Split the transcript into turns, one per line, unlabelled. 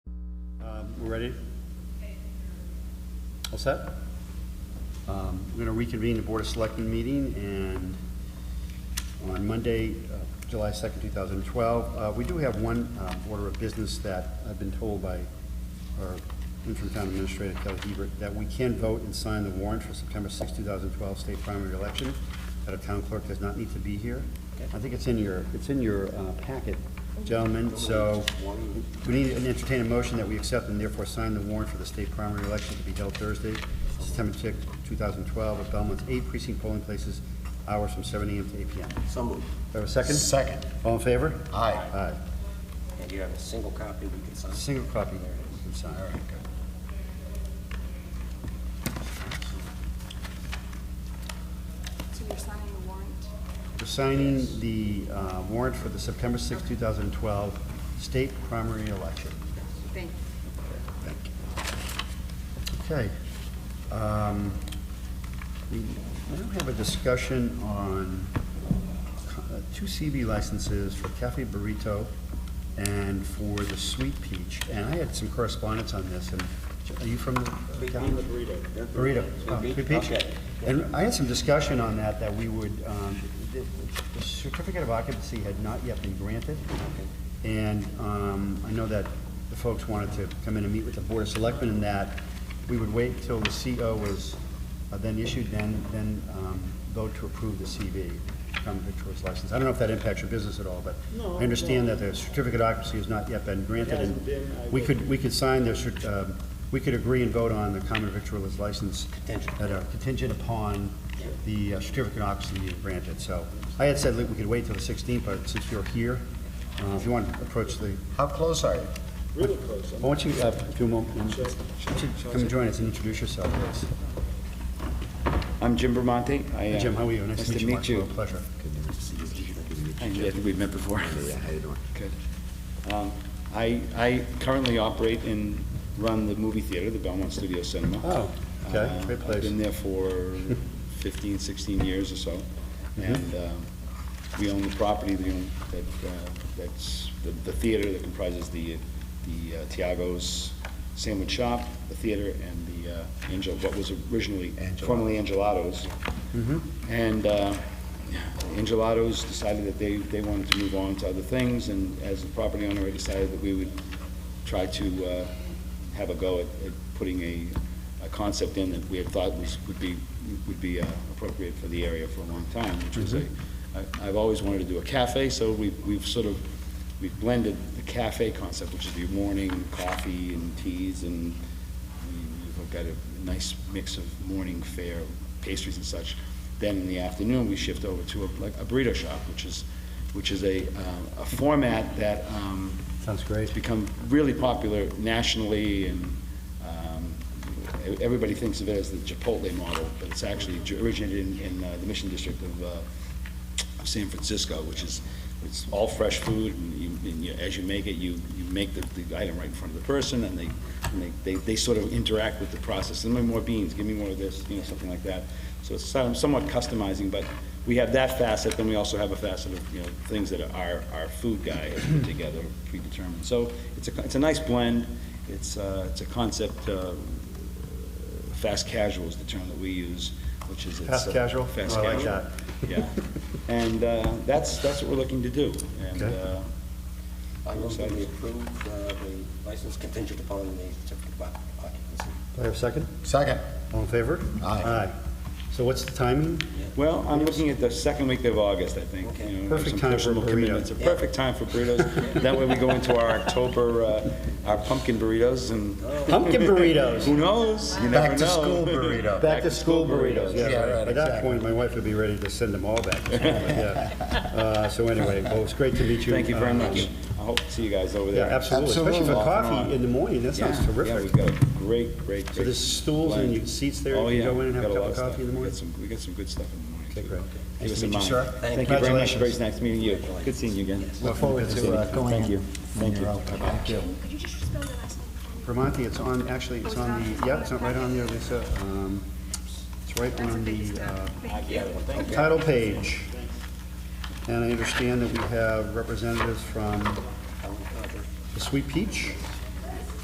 Um, ready? All set? Um, We're going to reconvene the Board of Selectmen meeting and on Monday, uh, July 2nd, 2012. Uh, We do have one uh, order of business that I've been told by our interim town administrator, Kelly Hebert, that we can vote and sign the warrant for September 6, 2012 state primary election, that a town clerk does not need to be here. I think it's in your, it's in your uh, packet, gentlemen, so we need an entertaining motion that we accept and therefore sign the warrant for the state primary election to be held Thursday, September 6, 2012, at Belmont's eight precinct polling places, hours from 7 AM to 8 PM.
So moved.
Do I have a second?
Second.
All in favor?
Aye.
Aye.
And you have a single copy we can sign.
Single copy there, you can sign. All right,
So you're signing the warrant?
We're signing the uh, warrant for the September 6, 2012 state primary election.
Thank you.
Thank you. Okay. um, We we don't have a discussion on co- uh, two CB licenses for Cafe Burrito and for the Sweet Peach. And I had some correspondence on this, and are you from the uh, town? Burrito, uh,
Sweet
Sweet
Peach?
Peach.
Okay.
And I had some discussion on that, that we would, um, the the certificate of occupancy had not yet been granted. And um, I know that the folks wanted to come in and meet with the Board of Selectmen and that we would wait till the CO was uh, then issued, then, then um, vote to approve the CV, common victuals license. I don't know if that impacts your business at all, but
No,
I understand that the certificate of occupancy has not yet been granted. and
Hasn't been, I
We could, we could sign the, cer- um, we could agree and vote on the common victuals license
Contingent.
that are contingent upon the uh, certificate of occupancy being granted. So I had said that we could wait till the 16th, but since you're here, uh, if you want to approach the,
How close are you?
Really close.
why don't you, uh, if you won't, um, why don't you come and join us and introduce yourself, please.
I'm Jim Bramante. I, uh,
Jim, how are you?
Nice to meet you.
Mark. Well, Pleasure.
I I think we've met before. Yeah, how you doing? Good. Um, I, I currently operate and run the movie theater, the Belmont Studio Cinema.
Oh, okay,
Uh,
great place.
I've been there for 15, 16 years or so.
Mm-hmm.
And um, we own the property, the, own- that, uh, that's, the- the theater that comprises the, the uh, Tiago's Sandwich Shop, the theater, and the uh, Angel, what was originally, formerly Angelato's.
Mm-hmm.
And uh, Angelatos decided that they, they wanted to move on to other things, and as the property owner, I decided that we would try to uh, have a go at at putting a, a concept in that we had thought was, would be, would be uh, appropriate for the area for a long time, which was a,
Mm-hmm.
I- I've always wanted to do a cafe, so we, we've sort of, we've blended the cafe concept, which is the morning coffee and teas and we've got a nice mix of morning fare, pastries and such. Then in the afternoon, we shift over to a, like a burrito shop, which is, which is a, uh, a format that, um,
Sounds great.
it's become really popular nationally, and um, e- everybody thinks of it as the Chipotle model, but it's actually j- originated in- in uh, the Mission District of uh, of San Francisco, which is, it's all fresh food, and you, and you- as you make it, you, you make the the item right in front of the person, and they, and they- they, they sort of interact with the process, give me more beans, give me more of this, you know, something like that. So it's some- somewhat customizing, but we have that facet, then we also have a facet of, you know, things that our, our food guy has put together, predetermined. So it's a, it's a nice blend, it's, uh, it's a concept, uh, fast casual is the term that we use, which is. it's,
Fast
uh,
casual?
Fast
I like
casual.
that.
Yeah, and uh, that's, that's what we're looking to do, and
Okay.
uh,
I move that we approve uh, the license contingent upon the certificate of occupancy.
Do I have a second?
Second.
All in favor?
Aye.
So what's the timing?
Well, I'm looking at the second week of August, I think. you know,
Perfect
some
time for
personal
burrito.
commitments. A perfect time for burritos. That way we go into our October, uh, our pumpkin burritos and
Pumpkin burritos.
who knows? You never
Back to
know.
school burrito.
Back to school burritos.
Yeah, right,
By that
exactly.
point, my wife would be ready to send them all back. to school, but yeah. Uh, So anyway, well, it's great to meet you.
Thank you very
uh,
much. I hope to see you guys over
Yeah,
there.
absolutely, especially for
Absolutely.
coffee in the morning, that sounds
Yeah, Yeah,
terrific.
we've got a great, great, great.
So there's stools and
blend.
seats there,
Oh,
you
yeah,
go in and have a
got
cup
lot
of
stuff.
coffee in the
We got
morning?
some- We got some good stuff in the morning.
Okay,
too.
great.
Keep
Nice
us
to
in
meet you,
mind.
sir.
Thank you very much.
Congratulations.
Very nice meeting you. Good seeing you again.
Look forward to uh, going
Thank
in
you.
when
Thank you.
you're open. Thank you.
Could you just spell the last name for me?
Vermonti, it's on, actually, it's
Oh, it's
on the,
not?
yeah, it's not right on there, Lisa. Um, It's right
That's a
on
big
the
step.
uh,
Thank you.
title page. And I understand that we have representatives from the Sweet Peach,